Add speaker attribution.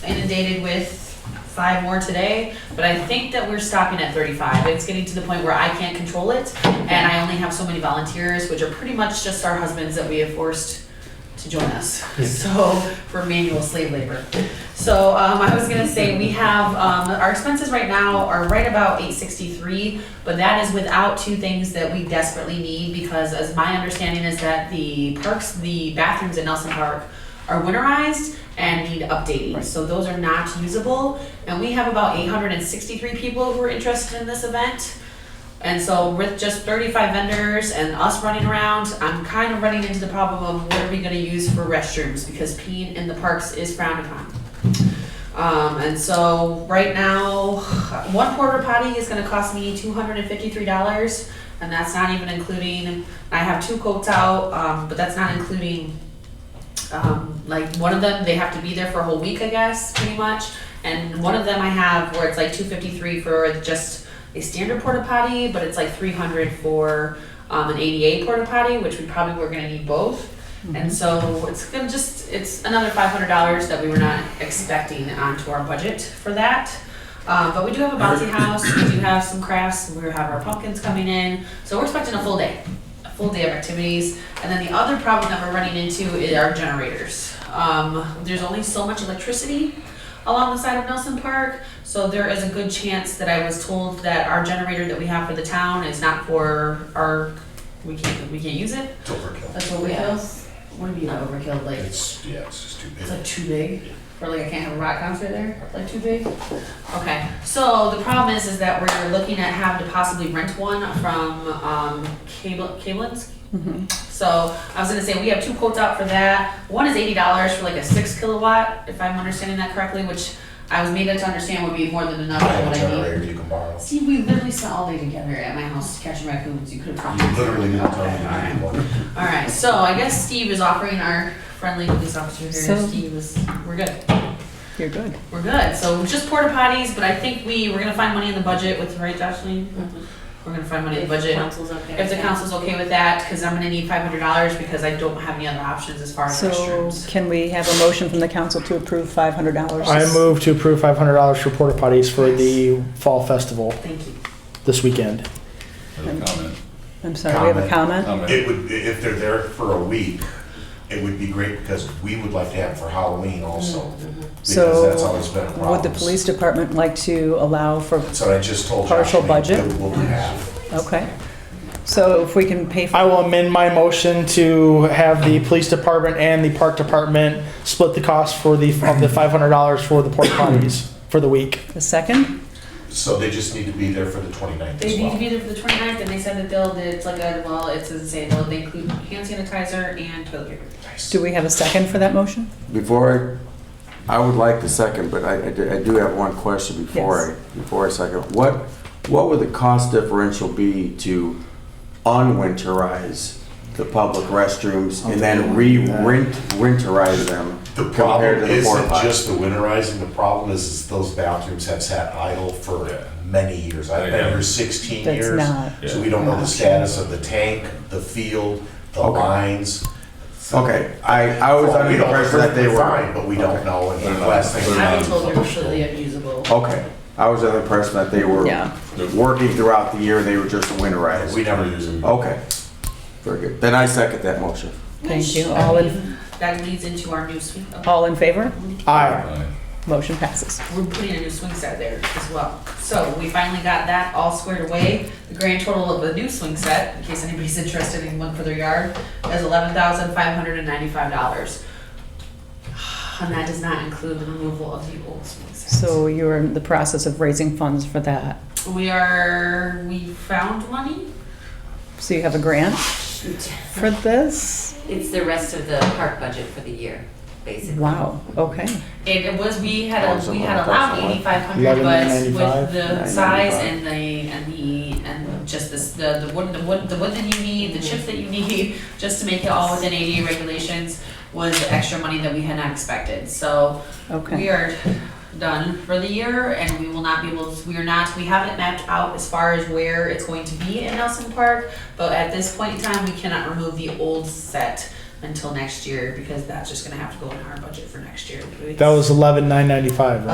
Speaker 1: inundated with five more today, but I think that we're stopping at thirty-five. It's getting to the point where I can't control it, and I only have so many volunteers, which are pretty much just our husbands that we have forced to join us, so, for manual slave labor. So, um, I was gonna say, we have, um, our expenses right now are right about eight sixty-three, but that is without two things that we desperately need, because as my understanding is that the parks, the bathrooms in Nelson Park are winterized and need updating, so those are not usable. And we have about eight hundred and sixty-three people who are interested in this event. And so with just thirty-five vendors and us running around, I'm kind of running into the problem of what are we gonna use for restrooms, because peeing in the parks is frowned upon. Um, and so right now, one porta potty is gonna cost me two hundred and fifty-three dollars, and that's not even including, I have two coats out, um, but that's not including um, like one of them they have to be there for a whole week i guess pretty much and one of them i have where it's like 253 for just a standard porta potty but it's like 300 for um, an ada porta potty which we probably were going to need both and so it's going to just it's another $500 that we were not expecting onto our budget for that uh, but we do have a bouncy house we do have some crafts we have our pumpkins coming in so we're expecting a full day a full day of activities. And then the other problem that we're running into is our generators. Um, there's only so much electricity along the side of Nelson Park, so there is a good chance that I was told that our generator that we have for the town is not for our, we can't, we can't use it.
Speaker 2: It's overkill.
Speaker 1: That's what we
Speaker 3: Yeah.
Speaker 1: have. What do you mean not overkill, like?
Speaker 2: It's, yeah, it's just too big.
Speaker 1: It's like too big, or like I can't have a rock concert there, like too big? Okay, so the problem is, is that we're looking at having to possibly rent one from, um, Cable, Cableins? So, I was gonna say, we have two quotes out for that, one is eighty dollars for like a six kilowatt, if I'm understanding that correctly, which I was made to understand would be more than enough
Speaker 2: I
Speaker 1: for
Speaker 2: have a
Speaker 1: what I need.
Speaker 2: generator you can borrow.
Speaker 1: See, we literally spent all day together at my house catching raccoons, you could've probably.
Speaker 2: You literally not tell me
Speaker 1: Okay, alright.
Speaker 2: you need one.
Speaker 1: All right, so I guess Steve is offering our friendly police officer here.
Speaker 3: So-
Speaker 1: Steve is, we're good.
Speaker 3: You're good.
Speaker 1: We're good. So just porta potties, but I think we, we're gonna find money in the budget with, right, Jocelyn? We're gonna find money in the budget.
Speaker 4: Council's okay.
Speaker 1: If the council's okay with that, because I'm gonna need five hundred dollars because I don't have any other options as far as
Speaker 3: So
Speaker 1: restrooms.
Speaker 3: can we have a motion from the council to approve five hundred dollars?
Speaker 5: I move to approve five hundred dollars for porta potties for the fall festival
Speaker 1: Thank you.
Speaker 5: this weekend.
Speaker 6: Another comment,
Speaker 3: I'm sorry, we have a comment?
Speaker 6: comment.
Speaker 2: It would, if they're there for a week, it would be great because we would like to have it for Halloween also.
Speaker 1: Mm-hmm.
Speaker 2: Because that's
Speaker 3: So
Speaker 2: always been a problem.
Speaker 3: would the police department like to allow for,
Speaker 2: That's what I just told Josh.
Speaker 3: Partial
Speaker 2: we-
Speaker 3: budget?
Speaker 2: We'll do half.
Speaker 3: okay. So if we can pay
Speaker 5: I
Speaker 3: for,
Speaker 5: will amend my motion to have the police department and the park department split the cost for the, of the five hundred dollars for the porta potties for the week.
Speaker 3: a second?
Speaker 2: So they just need to be there for the 29th as
Speaker 1: They need to
Speaker 2: well.
Speaker 1: be there for the 29th, and they said that they'll, it's like a, well, it's insane. They'll, they include hand sanitizer and toilet paper.
Speaker 2: Nice.
Speaker 3: Do we have a second for that motion?
Speaker 7: Before, I I would like to second, but I, I do- I do have one question before, I before I second. What, what would the cost differential be to unwinterize the public restrooms and then re-rent, winterize them
Speaker 2: The
Speaker 7: compared
Speaker 2: problem
Speaker 7: to the porta
Speaker 2: isn't
Speaker 7: potties?
Speaker 2: just the winterizing, the problem is, is those bathrooms have sat idle for many years. I've been here sixteen
Speaker 3: That's
Speaker 2: years.
Speaker 3: not-
Speaker 2: So we don't know the status of the tank, the field, the
Speaker 7: Okay.
Speaker 2: lines. So-
Speaker 7: Okay, I, I was
Speaker 2: Well,
Speaker 7: under
Speaker 2: we
Speaker 7: the
Speaker 2: don't-
Speaker 7: impression that they
Speaker 2: they're
Speaker 7: were.
Speaker 2: fine, But we don't
Speaker 7: Okay.
Speaker 2: know, and
Speaker 6: They're
Speaker 2: the
Speaker 6: not-
Speaker 2: last thing.
Speaker 6: they're
Speaker 1: I
Speaker 6: not-
Speaker 1: was told they're completely unusable.
Speaker 7: Okay, I was under the impression that they were
Speaker 3: Yeah.
Speaker 7: working throughout the year, they were just winterized.
Speaker 2: We never use them.
Speaker 7: Okay, very good. Then I second that motion.
Speaker 3: Thank you.
Speaker 1: Which, I
Speaker 3: All in-
Speaker 1: mean, That leads into our new swing, oh,
Speaker 3: All in favor?
Speaker 5: Aye.
Speaker 6: Aye.
Speaker 3: Motion passes.
Speaker 1: we're putting a new swing set there as well. So we finally got that all squared away. The grand total of the new swing set, in case anybody's interested in one for their yard, is eleven thousand five hundred and ninety-five dollars. And that does not include the removal of the old swing set.
Speaker 3: So you're in the process of raising funds for that.
Speaker 1: We are, we found money?
Speaker 3: So you have a grant for this?
Speaker 4: It's the rest of the park budget for the year, basically.
Speaker 3: Wow, okay.
Speaker 1: It it was, we had, a
Speaker 7: Awesome,
Speaker 1: we had allowed
Speaker 7: awesome.
Speaker 1: eighty-five hundred, but with
Speaker 5: 1195,
Speaker 1: the size
Speaker 7: 995.
Speaker 1: and the, and the, and just this, the, the wood, the wood, the wood that you need, the chips that you need, just to make it all within ADA regulations, was extra money that we had not expected, so we
Speaker 3: Okay,
Speaker 1: are done for the year, and we will not be able, to- we are not, we haven't mapped out as far as where it's going to be in Nelson Park, but at this point in time, we cannot remove the old set until next year because that's just gonna have to go in our budget for next year.
Speaker 5: That was eleven nine ninety five, right?